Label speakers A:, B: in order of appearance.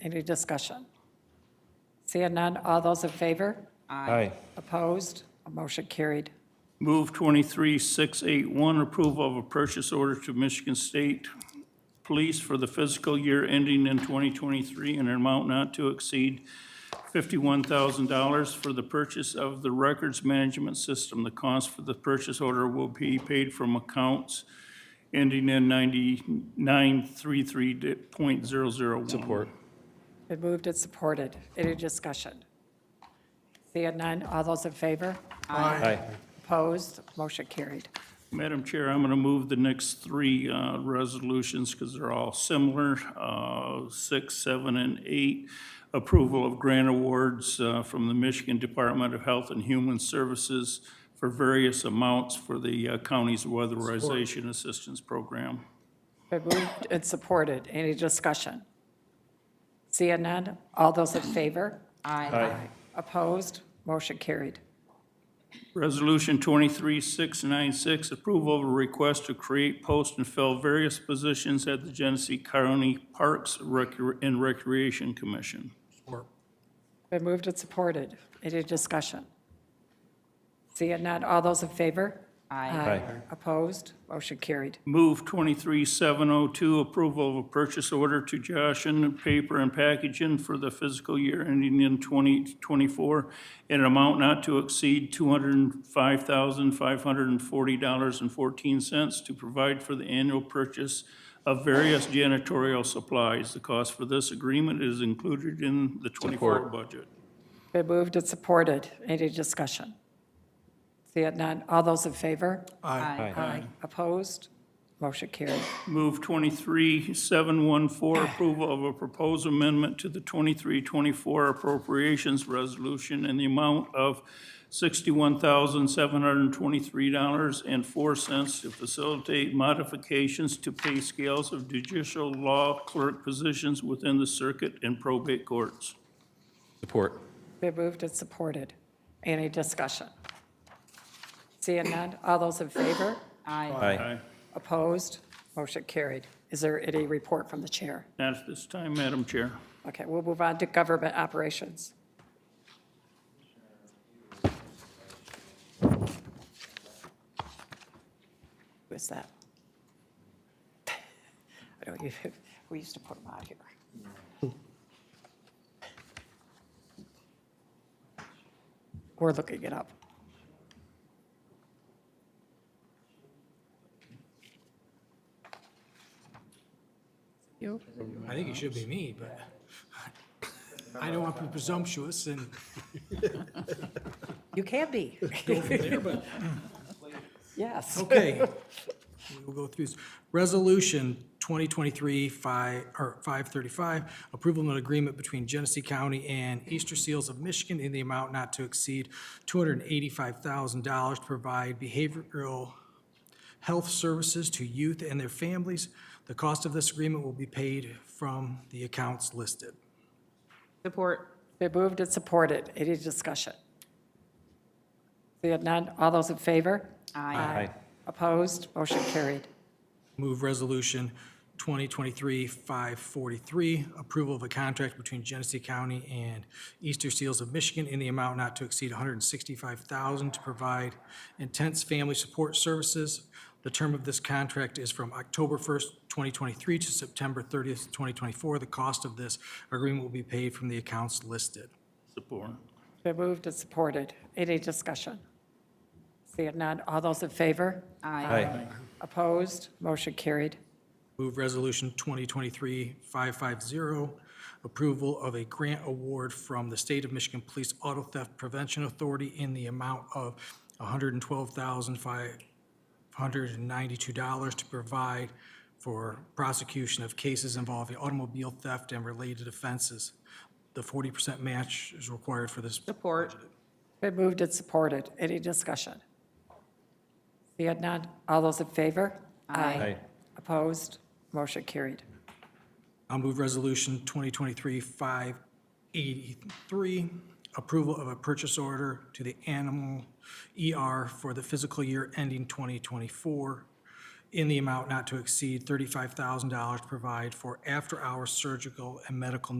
A: Any discussion? Seeing none, all those in favor?
B: Aye.
A: Opposed? Motion carried.
C: Move 23681, approval of a purchase order to Michigan State Police for the fiscal year ending in 2023 in an amount not to exceed $51,000 for the purchase of the records management system. The cost for the purchase order will be paid from accounts ending in 9933.001. Support.
A: Been moved and supported. Any discussion? Seeing none, all those in favor?
B: Aye.
A: Opposed? Motion carried.
C: Madam Chair, I'm going to move the next three uh, resolutions because they're all similar, uh, six, seven, and eight. Approval of grant awards uh, from the Michigan Department of Health and Human Services for various amounts for the uh, county's weatherization assistance program.
A: Been moved and supported. Any discussion? Seeing none, all those in favor?
B: Aye.
A: Opposed? Motion carried.
C: Resolution 23696, approval of a request to create, post, and fill various positions at the Genesee County Parks Recre- and Recreation Commission.
A: Been moved and supported. Any discussion? Seeing none, all those in favor? Aye. Opposed? Motion carried.
C: Move 23702, approval of a purchase order to Joshen Paper and Packaging for the fiscal year ending in 2024 in an amount not to exceed $205,540.14 to provide for the annual purchase of various janitorial supplies. The cost for this agreement is included in the 24 budget.
A: Been moved and supported. Any discussion? Seeing none, all those in favor?
B: Aye.
A: Aye. Opposed? Motion carried.
C: Move 23714, approval of a proposed amendment to the 2324 appropriations resolution in the amount of $61,723.04 to facilitate modifications to pay scales of judicial law clerk positions within the circuit and probate courts.
B: Support.
A: Been moved and supported. Any discussion? Seeing none, all those in favor?
B: Aye.
C: Aye.
A: Opposed? Motion carried. Is there any report from the chair?
C: Not at this time, Madam Chair.
A: Okay, we'll move on to government operations. Who is that? I don't even, we used to put them out here. We're looking it up. You?
D: I think it should be me, but I don't want to be presumptuous and
A: You can be.
D: go from there, but,
A: Yes.
D: okay. We'll go through this. Resolution 2023-5, or 535, approval of an agreement between Genesee County and Easter Seals of Michigan in the amount not to exceed $285,000 to provide behavioral health services to youth and their families. The cost of this agreement will be paid from the accounts listed.
E: Support.
A: Been moved and supported. Any discussion? Seeing none, all those in favor?
E: Aye.
B: Aye.
A: Opposed? Motion carried.
D: Move Resolution 2023-543, approval of a contract between Genesee County and Easter Seals of Michigan in the amount not to exceed $165,000 to provide intense family support services. The term of this contract is from October 1st, 2023 to September 30th, 2024. The cost of this agreement will be paid from the accounts listed.
C: Support.
A: Been moved and supported. Any discussion? Seeing none, all those in favor?
B: Aye.
A: Opposed? Motion carried.
D: Move Resolution 2023-550, approval of a grant award from the State of Michigan Police Auto Theft Prevention Authority in the amount of $112,592 to provide for prosecution of cases involving automobile theft and related offenses. The 40% match is required for this.
E: Support.
A: Been moved and supported. Any discussion? Seeing none, all those in favor?
B: Aye.
A: Opposed? Motion carried.
D: I'll move Resolution 2023-583, approval of a purchase order to the Animal ER for the physical year ending 2024 in the amount not to exceed $35,000 to provide for after-hours surgical and medical